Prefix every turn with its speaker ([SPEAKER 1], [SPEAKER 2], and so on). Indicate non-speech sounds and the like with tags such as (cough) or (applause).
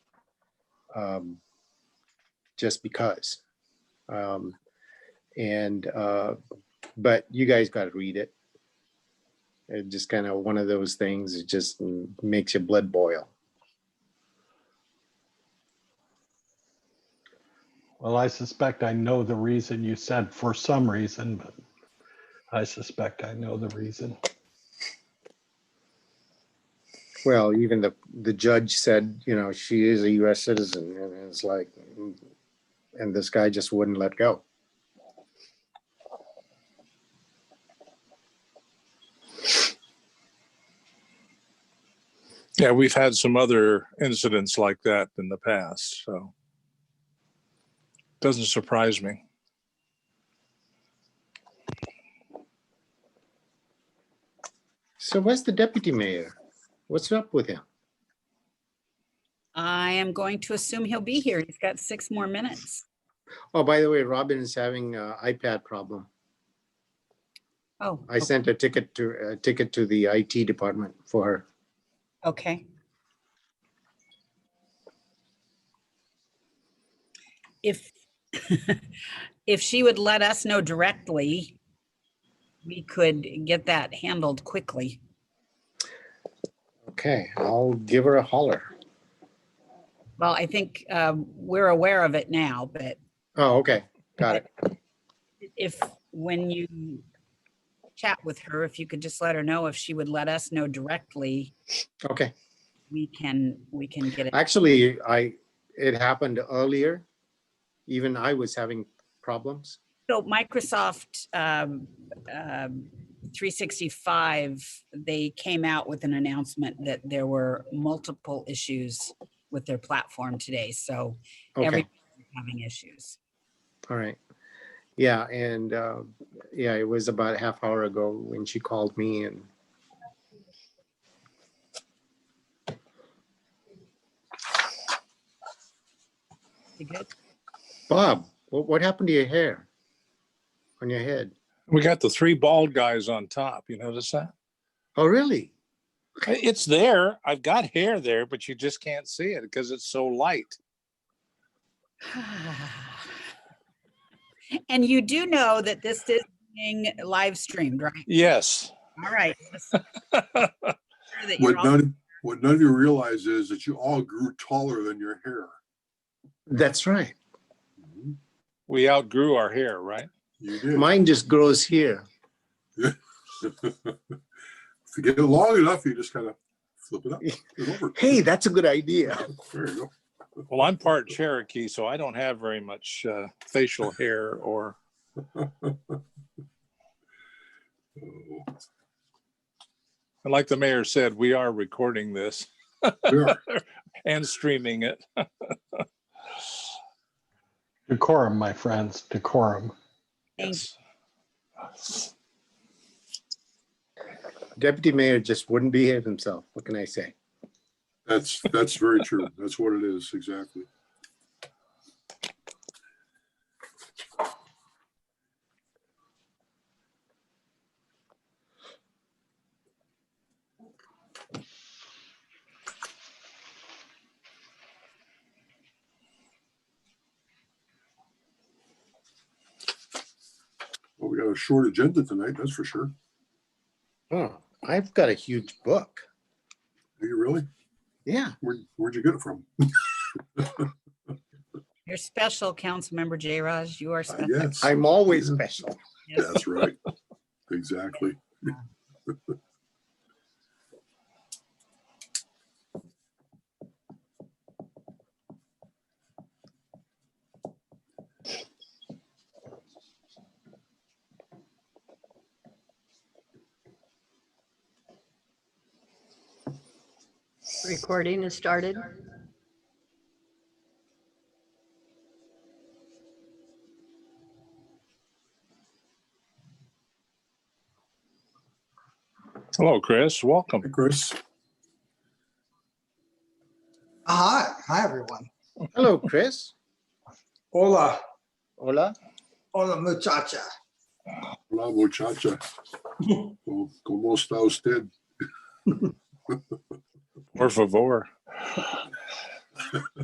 [SPEAKER 1] um, just because. Um, And, uh, but you guys got to read it. It just kind of one of those things, it just makes your blood boil.
[SPEAKER 2] Well, I suspect I know the reason you said for some reason, but I suspect I know the reason.
[SPEAKER 1] Well, even the, the judge said, you know, she is a US citizen and it's like, mm, and this guy just wouldn't let go.
[SPEAKER 3] Yeah, we've had some other incidents like that in the past, so. Doesn't surprise me.
[SPEAKER 1] So where's the deputy mayor? What's up with him?
[SPEAKER 4] I am going to assume he'll be here. He's got six more minutes.
[SPEAKER 1] Oh, by the way, Robin is having a iPad problem.
[SPEAKER 4] Oh,
[SPEAKER 1] I sent a ticket to, a ticket to the IT department for her.
[SPEAKER 4] okay. If, (laughs) if she would let us know directly, we could get that handled quickly.
[SPEAKER 1] Okay, I'll give her a holler.
[SPEAKER 4] Well, I think um, we're aware of it now, but
[SPEAKER 1] Oh, okay, got it.
[SPEAKER 4] if, when you chat with her, if you could just let her know if she would let us know directly,
[SPEAKER 1] Okay.
[SPEAKER 4] we can, we can get it.
[SPEAKER 1] Actually, I, it happened earlier. Even I was having problems.
[SPEAKER 4] So Microsoft um, um, 365, they came out with an announcement that there were multiple issues with their platform today. So
[SPEAKER 1] Okay,
[SPEAKER 4] everyone's having issues.
[SPEAKER 1] all right. Yeah, and, uh, yeah, it was about a half hour ago when she called me and
[SPEAKER 4] You good? (sighs)
[SPEAKER 1] Bob, what, what happened to your hair? On your head?
[SPEAKER 3] We got the three bald guys on top, you notice that?
[SPEAKER 1] Oh, really?
[SPEAKER 3] It's there. I've got hair there, but you just can't see it because it's so light.
[SPEAKER 4] And you do know that this is being live streamed, right?
[SPEAKER 3] Yes.
[SPEAKER 4] All right. Let's make sure that you're
[SPEAKER 5] What
[SPEAKER 4] all-
[SPEAKER 5] none, what none of you realize is that you all grew taller than your hair.
[SPEAKER 1] That's right.
[SPEAKER 3] We outgrew our hair, right?
[SPEAKER 5] You did.
[SPEAKER 1] Mine just grows here.
[SPEAKER 5] (laughs) If you get it long enough, you just kind of flip it up. and over.
[SPEAKER 1] Hey, that's a good idea. (laughs)
[SPEAKER 5] There you go.
[SPEAKER 3] Well, I'm part Cherokee, so I don't have very much uh, (laughs) facial hair or,
[SPEAKER 5] Oh,
[SPEAKER 3] and like the mayor said, we are recording this
[SPEAKER 5] there.
[SPEAKER 3] and streaming it.
[SPEAKER 2] Decorum, my friends, decorum.
[SPEAKER 4] Thank
[SPEAKER 3] Yes.
[SPEAKER 1] Deputy Mayor just wouldn't behave himself. What can I say?
[SPEAKER 5] That's, that's very true. That's what it is, exactly. Well, we got a short agenda tonight, that's for sure.
[SPEAKER 1] Oh, I've got a huge book.
[SPEAKER 5] Do you really?
[SPEAKER 1] Yeah.
[SPEAKER 5] Where, where'd you get it from?
[SPEAKER 4] You're special, Councilmember J. Raj. You are
[SPEAKER 5] I
[SPEAKER 4] special.
[SPEAKER 5] guess.
[SPEAKER 1] I'm always special.
[SPEAKER 4] Yes.
[SPEAKER 5] That's right. Exactly.
[SPEAKER 6] Recording is started.
[SPEAKER 3] Hello, Chris. Welcome.
[SPEAKER 5] Hey, Chris,
[SPEAKER 7] Hi, hi everyone.
[SPEAKER 1] Hello, Chris.
[SPEAKER 7] Hola,
[SPEAKER 1] Hola.
[SPEAKER 7] hola muchacha.
[SPEAKER 5] hola muchacha. Como- ¿Cómo está usted?
[SPEAKER 3] Por favor.